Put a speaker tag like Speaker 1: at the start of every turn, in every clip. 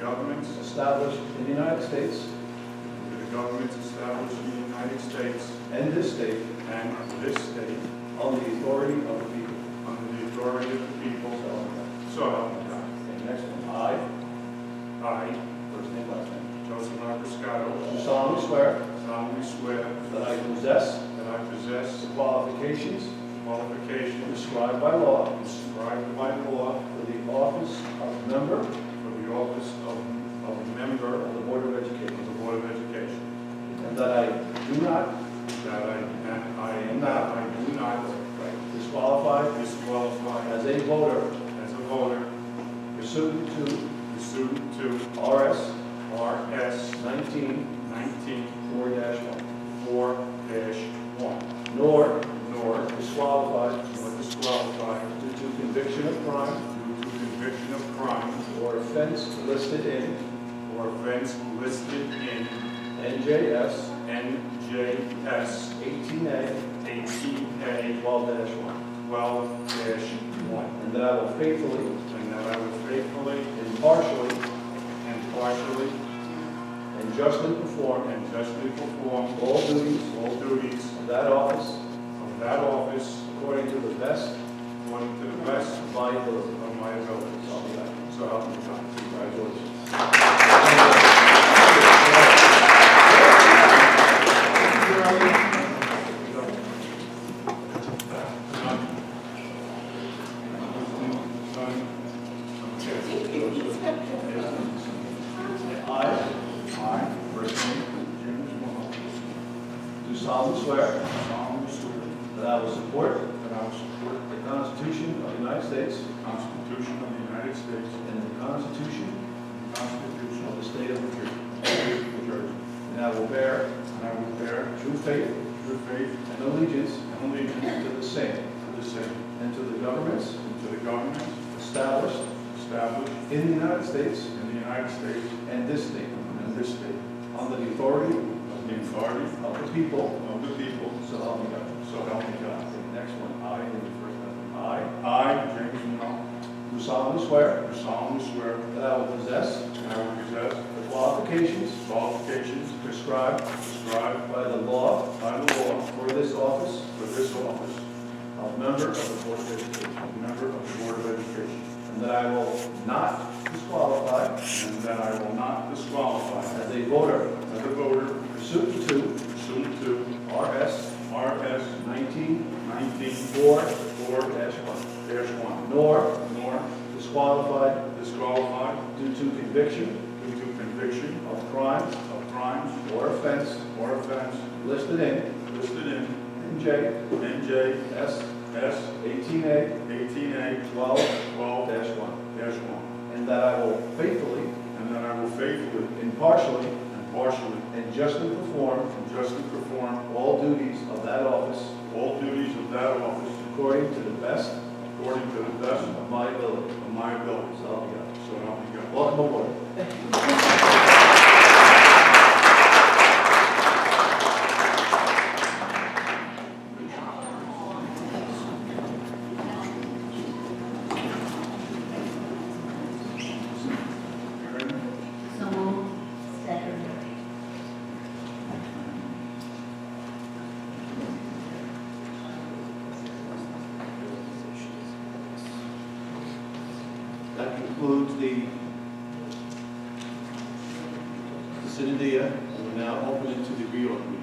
Speaker 1: governments
Speaker 2: established in the United States
Speaker 1: to the governments established in the United States
Speaker 2: and this state
Speaker 1: and of this state
Speaker 2: on the authority of the people.
Speaker 1: under the authority of the people,
Speaker 2: So, uh,
Speaker 1: so help me God.
Speaker 2: and next one, I,
Speaker 1: I,
Speaker 2: first name, last name,
Speaker 1: Joseph Marcuscato,
Speaker 2: do solemnly swear
Speaker 1: solemnly swear
Speaker 2: that I possess
Speaker 1: that I possess
Speaker 2: the qualifications
Speaker 1: the qualifications
Speaker 2: prescribed by law
Speaker 1: prescribed by law
Speaker 2: for the office of member
Speaker 1: for the office of of a member
Speaker 2: of the Board of
Speaker 1: of
Speaker 2: Education,
Speaker 1: the Board of Education.
Speaker 2: and that I do not
Speaker 1: That I, that I am not, I do not
Speaker 2: disqualify
Speaker 1: disqualify
Speaker 2: as a voter
Speaker 1: as a voter
Speaker 2: pursuant to
Speaker 1: pursuant to
Speaker 2: RS
Speaker 1: RS
Speaker 2: 19
Speaker 1: nineteen
Speaker 2: 4-1,
Speaker 1: four one,
Speaker 2: nor
Speaker 1: nor
Speaker 2: disqualified
Speaker 1: nor disqualified
Speaker 2: due to conviction of crime
Speaker 1: due to conviction of crime
Speaker 2: or offense listed in
Speaker 1: or offense listed in
Speaker 2: NJS
Speaker 1: NJS
Speaker 2: 18A
Speaker 1: eighteen A
Speaker 2: 12-1,
Speaker 1: twelve one,
Speaker 2: and that I will faithfully,
Speaker 1: and that I will faithfully,
Speaker 2: impartially,
Speaker 1: impartially,
Speaker 2: and justly perform
Speaker 1: and justly perform
Speaker 2: all duties
Speaker 1: all duties
Speaker 2: of that office
Speaker 1: of that office
Speaker 2: according to the best
Speaker 1: According to the best
Speaker 2: of my ability.
Speaker 1: of my ability.
Speaker 2: So help me God.
Speaker 1: So help me God. Congratulations.
Speaker 2: I
Speaker 1: I, first name, James Mahal,
Speaker 2: do solemnly swear
Speaker 1: solemnly swear
Speaker 2: that I will support
Speaker 1: that I will support
Speaker 2: the Constitution of the United States
Speaker 1: the Constitution of the United States
Speaker 2: and the Constitution
Speaker 1: and the Constitution
Speaker 2: of the State of New Jersey,
Speaker 1: of the State of New Jersey,
Speaker 2: and I will bear
Speaker 1: and I will bear
Speaker 2: true faith
Speaker 1: true faith
Speaker 2: and allegiance
Speaker 1: and allegiance
Speaker 2: to the same
Speaker 1: to the same
Speaker 2: and to the governments
Speaker 1: and to the governments
Speaker 2: established
Speaker 1: established
Speaker 2: in the United States
Speaker 1: in the United States
Speaker 2: and this state,
Speaker 1: and this state,
Speaker 2: under the authority
Speaker 1: of the authority
Speaker 2: of the people,
Speaker 1: of the people,
Speaker 2: so help me God.
Speaker 1: so help me God.
Speaker 2: Next one, I, in the first one, I
Speaker 1: I, James Monroe,
Speaker 2: do solemnly swear
Speaker 1: do solemnly swear
Speaker 2: that I will possess
Speaker 1: that I will possess
Speaker 2: the qualifications
Speaker 1: the qualifications
Speaker 2: prescribed
Speaker 1: prescribed
Speaker 2: by the law
Speaker 1: by the law
Speaker 2: for this office
Speaker 1: for this office,
Speaker 2: of member of the Board of Education,
Speaker 1: a member of the Board of Education,
Speaker 2: and that I will not disqualify
Speaker 1: and that I will not disqualify
Speaker 2: as a voter
Speaker 1: as a voter
Speaker 2: pursuant to
Speaker 1: pursuant to
Speaker 2: RS
Speaker 1: RS
Speaker 2: 19
Speaker 1: nineteen
Speaker 2: 4
Speaker 1: four
Speaker 2: one
Speaker 1: dash one,
Speaker 2: nor
Speaker 1: nor
Speaker 2: disqualified
Speaker 1: disqualified
Speaker 2: due to conviction
Speaker 1: due to conviction
Speaker 2: of crimes
Speaker 1: of crimes
Speaker 2: or offense
Speaker 1: or offense
Speaker 2: listed in
Speaker 1: listed in
Speaker 2: NJS
Speaker 1: NJS
Speaker 2: 18A
Speaker 1: 18A
Speaker 2: 12-1,
Speaker 1: 12-1,
Speaker 2: and that I will faithfully,
Speaker 1: and that I will faithfully,
Speaker 2: impartially,
Speaker 1: impartially,
Speaker 2: and justly perform
Speaker 1: and justly perform
Speaker 2: all duties of that office
Speaker 1: all duties of that office
Speaker 2: according to the best
Speaker 1: according to the best
Speaker 2: of my ability.
Speaker 1: of my
Speaker 2: So
Speaker 1: abilities.
Speaker 2: help me God.
Speaker 1: So help me God.
Speaker 2: Welcome aboard.
Speaker 3: So moved. Second.
Speaker 2: That concludes the Synodia. uh, We're now open into the reorg meeting.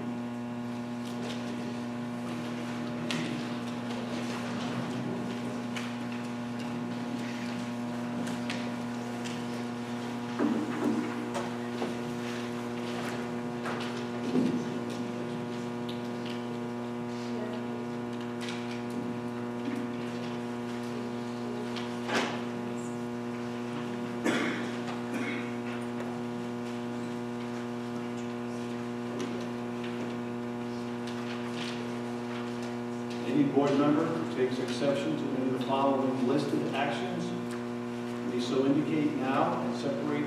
Speaker 2: Any board member who takes exception to any of the following listed actions may so indicate now and separate